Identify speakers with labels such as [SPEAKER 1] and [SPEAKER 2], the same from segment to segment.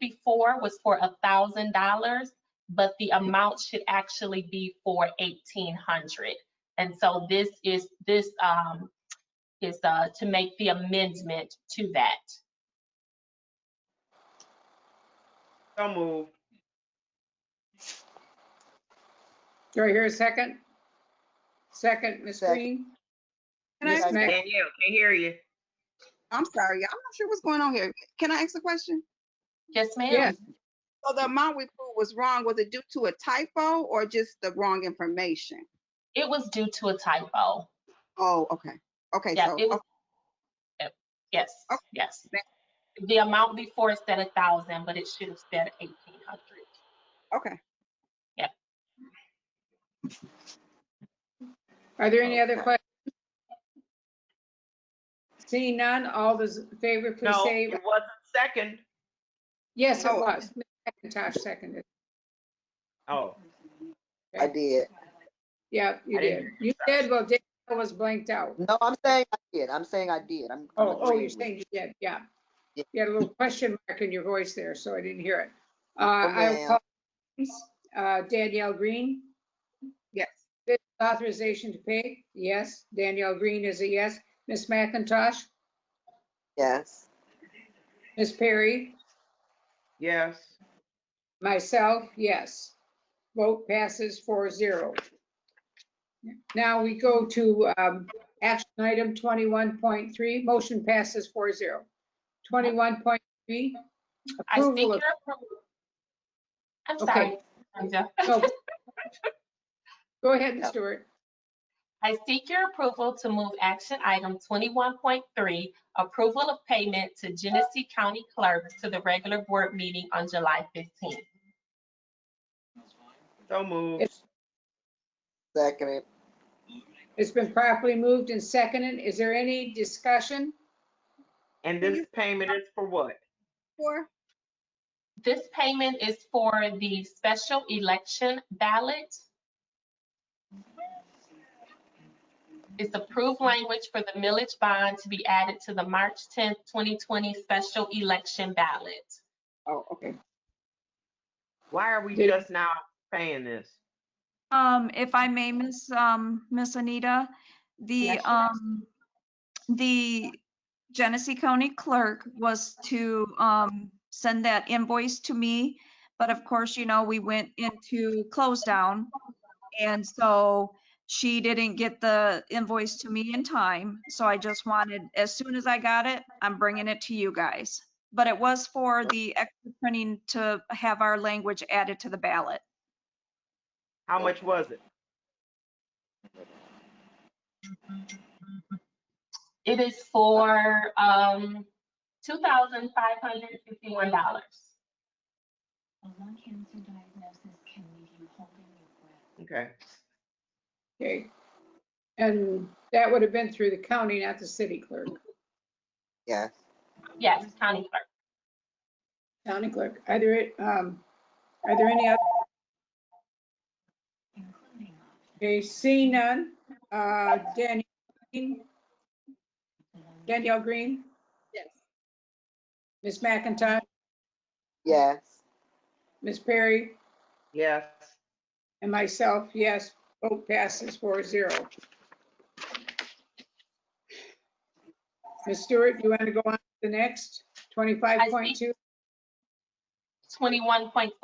[SPEAKER 1] before was for a thousand dollars, but the amount should actually be for eighteen hundred. And so this is, this, um, is, uh, to make the amendment to that.
[SPEAKER 2] So moved.
[SPEAKER 3] Do I hear a second? Second, Ms.
[SPEAKER 4] Second.
[SPEAKER 3] Green?
[SPEAKER 5] Can I,
[SPEAKER 3] Yes,
[SPEAKER 4] Yes,
[SPEAKER 5] ask-
[SPEAKER 3] ma'am.
[SPEAKER 2] Danielle, can hear you.
[SPEAKER 5] I'm sorry, I'm not sure what's going on here. Can I ask a question?
[SPEAKER 1] Yes, ma'am?
[SPEAKER 3] Yes.
[SPEAKER 5] So the amount we put was wrong. Was it due to a typo or just the wrong information?
[SPEAKER 1] It was due to a typo.
[SPEAKER 5] Oh, okay. Okay,
[SPEAKER 1] Yeah,
[SPEAKER 5] so,
[SPEAKER 1] it was.
[SPEAKER 5] okay,
[SPEAKER 1] Yep, Yes,
[SPEAKER 5] Okay.
[SPEAKER 1] yes. The amount before it said a thousand, but it should have said eighteen hundred.
[SPEAKER 5] okay.
[SPEAKER 3] Are there any other
[SPEAKER 5] Okay.
[SPEAKER 3] questions? Seeing none, all those in favor, please
[SPEAKER 2] No,
[SPEAKER 3] say,
[SPEAKER 2] it wasn't second.
[SPEAKER 3] yes, it
[SPEAKER 5] No.
[SPEAKER 3] was. Ms. McIntosh seconded.
[SPEAKER 2] Oh.
[SPEAKER 4] I did.
[SPEAKER 3] Yeah, you
[SPEAKER 2] I
[SPEAKER 3] did.
[SPEAKER 2] didn't
[SPEAKER 3] You did, well, Danielle was blanked out.
[SPEAKER 4] No, I'm saying I did. I'm saying I did. I'm. I'm
[SPEAKER 3] Oh, oh,
[SPEAKER 4] agreeing
[SPEAKER 3] you're
[SPEAKER 4] with
[SPEAKER 3] saying you did, yeah.
[SPEAKER 4] Yeah.
[SPEAKER 3] You had a little question mark in your voice there, so I didn't hear it. Uh,
[SPEAKER 4] Oh, ma'am.
[SPEAKER 3] I will call uh, Danielle Green.
[SPEAKER 5] Yes.
[SPEAKER 3] Bid Authorization to pay, yes. Danielle Green is a yes. Ms. McIntosh,
[SPEAKER 4] Yes.
[SPEAKER 3] Ms. Perry,
[SPEAKER 2] Yes.
[SPEAKER 3] myself, yes. Vote passes 4-0. Now we go to um, action item twenty-one point three, motion passes 4-0. Twenty-one point three.
[SPEAKER 1] I think
[SPEAKER 3] Approval
[SPEAKER 1] you're
[SPEAKER 3] of-
[SPEAKER 1] approved. I'm
[SPEAKER 3] Okay.
[SPEAKER 1] sorry. Sandra.
[SPEAKER 3] No. Go ahead, Ms. Stewart.
[SPEAKER 1] I seek your approval to move action item 21.3, approval of payment to Genesee County Clerk to the regular board meeting on July 15th.
[SPEAKER 2] So moved.
[SPEAKER 3] It's-
[SPEAKER 4] Second it.
[SPEAKER 3] It's been properly moved and seconded. Is there any discussion?
[SPEAKER 2] And this payment is for what?
[SPEAKER 5] Four,
[SPEAKER 1] This payment is for the special election ballot. It's approved language for the millage bond to be added to the March 10th, 2020 special election ballot.
[SPEAKER 5] oh, okay.
[SPEAKER 2] Why are we
[SPEAKER 3] Did-
[SPEAKER 2] just now paying this?
[SPEAKER 6] Um, if I may, Miss, um, Miss Anita, the,
[SPEAKER 1] Yes, ma'am.
[SPEAKER 6] um, the Genesee County Clerk was to, um, send that invoice to me. But of course, you know, we went into close down. And so she didn't get the invoice to me in time. So I just wanted, as soon as I got it, I'm bringing it to you guys. But it was for the extra printing to have our language added to the ballot.
[SPEAKER 2] How much was it?
[SPEAKER 1] It is for um, $2,551.
[SPEAKER 7] A lung cancer diagnosis can leave you holding your breath.
[SPEAKER 2] Okay.
[SPEAKER 3] Okay. And that would have been through the county, not the city clerk.
[SPEAKER 4] Yes.
[SPEAKER 3] Oh.
[SPEAKER 1] Yes, county clerk.
[SPEAKER 3] County clerk, are there, um, are there any other,
[SPEAKER 7] including options
[SPEAKER 3] okay, seeing none? Uh, Danielle, Green?
[SPEAKER 7] along
[SPEAKER 3] Danielle Green,
[SPEAKER 5] Yes.
[SPEAKER 3] Ms. McIntosh,
[SPEAKER 4] Yes.
[SPEAKER 3] Ms. Perry,
[SPEAKER 2] Yes.
[SPEAKER 3] and myself, yes. Vote passes 4-0. Ms. Stewart, you want to go on to the next? Twenty-five point two,
[SPEAKER 1] 21.4,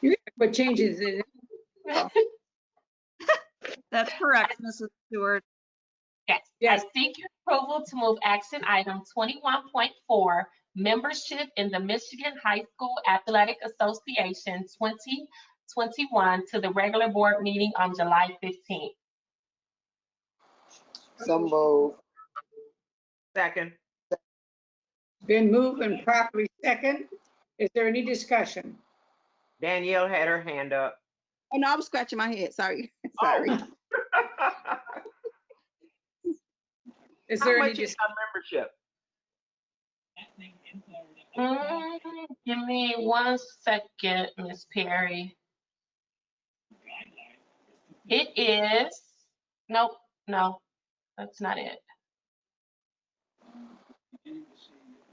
[SPEAKER 3] you put changes in it.
[SPEAKER 6] That's correct, Mrs. Stewart.
[SPEAKER 1] yes. I
[SPEAKER 3] Yes.
[SPEAKER 1] seek your approval to move action item 21.4, membership in the Michigan High School Athletic Association 2021 to the regular board meeting on July 15th.
[SPEAKER 4] So moved.
[SPEAKER 2] Second.
[SPEAKER 3] Been moved and properly second. Is there any discussion?
[SPEAKER 2] Danielle had her hand up.
[SPEAKER 5] Oh, no, I was scratching my head. Sorry,
[SPEAKER 2] Oh.
[SPEAKER 5] sorry.
[SPEAKER 3] Is
[SPEAKER 2] How
[SPEAKER 3] there any,
[SPEAKER 2] much
[SPEAKER 3] dis-
[SPEAKER 2] is our membership?
[SPEAKER 1] Mm, Give me one second, Ms. Perry. It is, nope, no, that's not it.